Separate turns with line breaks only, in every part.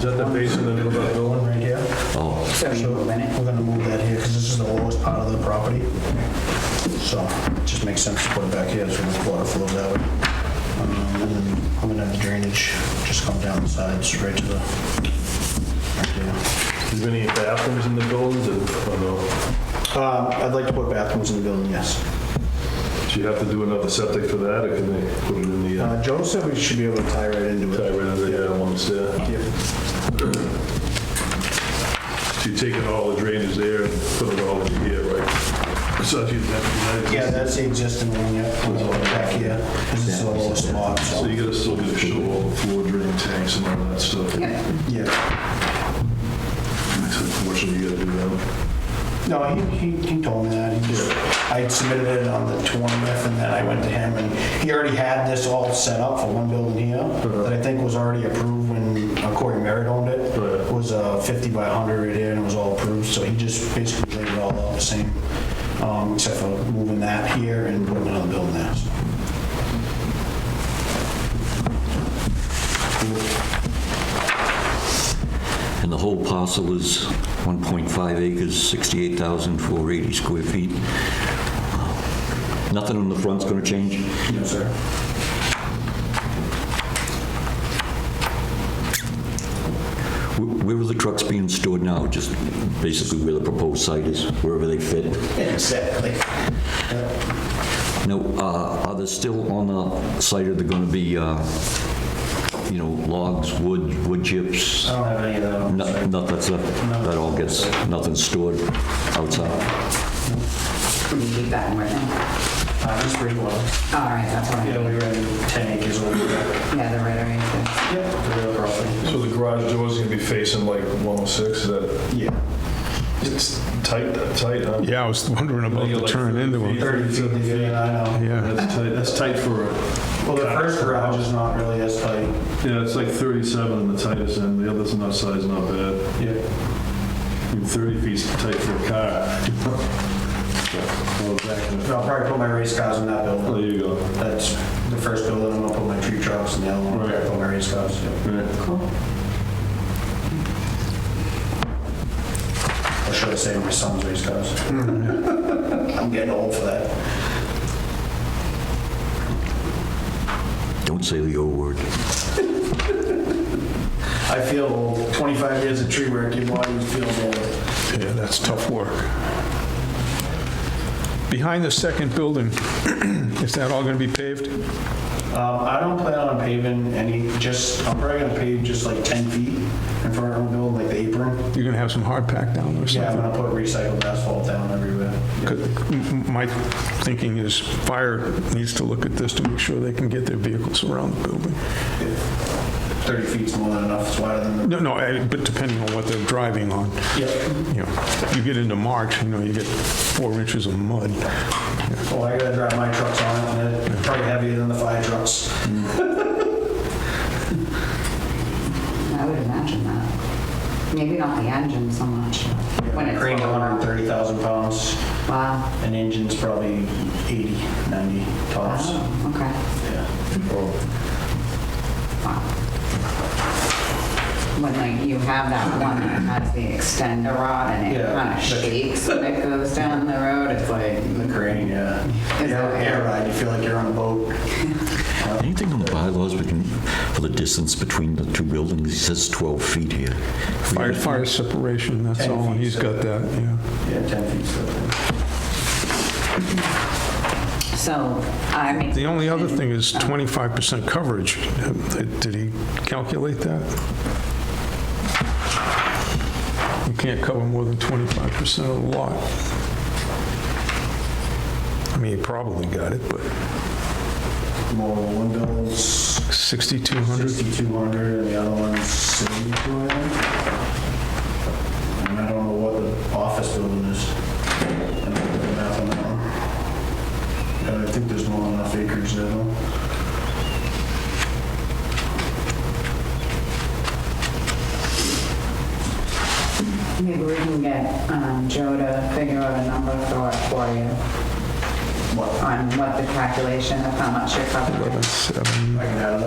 that the base in the middle of that building right here?
Oh,
So
So
you
we're
move in it.
gonna move that here, because this is the lowest part of the property. So it just makes sense to put it back here, so the water flows out. Um, And then I'm gonna have the drainage just come down the sides right to the, right there.
Is there any bathrooms in the buildings? oh, or- or no?
Uh, I'd like to put bathrooms in the building, yes.
Do you have to do another septic for that, or can they put it in the, uh,
Uh, Joe said we should be able to tie right into
tie
it.
right under the uh, ones there? So you're taking all the drainage there and putting it all in here, right? So if you have,
Yeah, that's the existing one, yeah, back here, this is the lowest spot,
So
so,
you gotta still get a show all the floor drain tanks and all that stuff.
yeah.
Unfortunately, you gotta do that.
No, he, he, he told me that, he just, I submitted it on the 20th, and then I went to him, and he already had this all set up for one building here, that I think was already approved when uh, Corey Merritt owned it,
Right.
It was uh, 50 by 100 right here, and it was all approved, so he just basically laid it all out the same, um, except for moving that here and putting another building there, so.
and the whole parcel is 1.5 acres, 68,480 square feet. Nothing on the front's going to change?
No, sir.
Wh- Where are the trucks being stored now? Just basically where the proposed site is, wherever they fit?
Exactly.
Now, uh, are there still on the site, are there going to be, uh, you know, logs, wood, wood chips?
I don't have any of that on.
No- Not that's, that all gets, nothing's stored outside?
Can we leave that in right now?
Uh, This pretty well,
All right, that's all
yeah,
right.
we ran 10 acres over there.
Yeah, they're right underneath
Yep. The real property.
So the garage door's gonna be facing like 106, is that,
Yeah.
it's tight, tight, huh?
Yeah, I was wondering about the turn into it.
30 feet to get in, I know.
Yeah,
That's tight, that's tight for, a-
Well, the first garage is not really as tight.
yeah, it's like 37 in the tightest end, the other's not size, not bad.
Yeah.
I mean, 30 feet's tight for a car. So, well, back in the-
I'll probably put my race cars in that
There
building.
you go.
That's the first building, I'm gonna put my tree trucks in the other one, I'll put my race cars. yeah.
Right.
it. Cool.
I should have saved my son's race cars. I'm getting old for that.
Don't say the O word.
I feel old, 25 years of tree work, your body feels old.
yeah, that's tough work. Behind the second building, is that all going to be paved?
Um, I don't plan on paving any, just, I'm probably gonna pave just like 10 feet in front of the building, like the apron.
You're going to have some hard pack down or
Yeah, I'm
something?
gonna put recycled asphalt down everywhere.
'Cause m- m- My thinking is fire needs to look at this to make sure they can get their vehicles around the building.
30 feet's more than enough, it's wider than the,
No, no, I- but depending on what they're driving on,
yeah.
you know, you get into March, you know, you get four inches of mud.
Well, Oh, I gotta drive my trucks on it, and they're probably heavier than the fire trucks.
I would imagine that. Maybe not the engine so much. When it's
Crane's 130,000 pounds,
Wow.
and engine's probably 80, 90 tops.
Oh, okay.
Yeah.
Wow. When like you have that one that has the extender rod and it
Yeah.
kind of shakes when it goes down the road, it's like,
The crane, yeah.
Is
Yeah,
that-
air ride, you feel like you're on a boat.
Anything on the bylaws between, for the distance between the two buildings? It says 12 feet here.
Fire, fire separation, that's
Ten
all, and
feet
he's got that, yeah.
Yeah, 10 feet. so-
so I mean.
The only other thing is 25% coverage. Did he calculate that? You can't cover more than 25% of the lot. I mean, he probably got it, but
More windows,
6,200?
6,200, and the other one's 7,200. And I don't know what the office building is. I don't know the math on that one. And I think there's more than enough acres there, though.
Maybe we can get um, Joe to figure out a number for it for you. On what the calculation of how much you're covering.
11,700,
I can add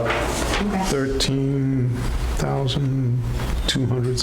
it up.
Okay.
13,000 200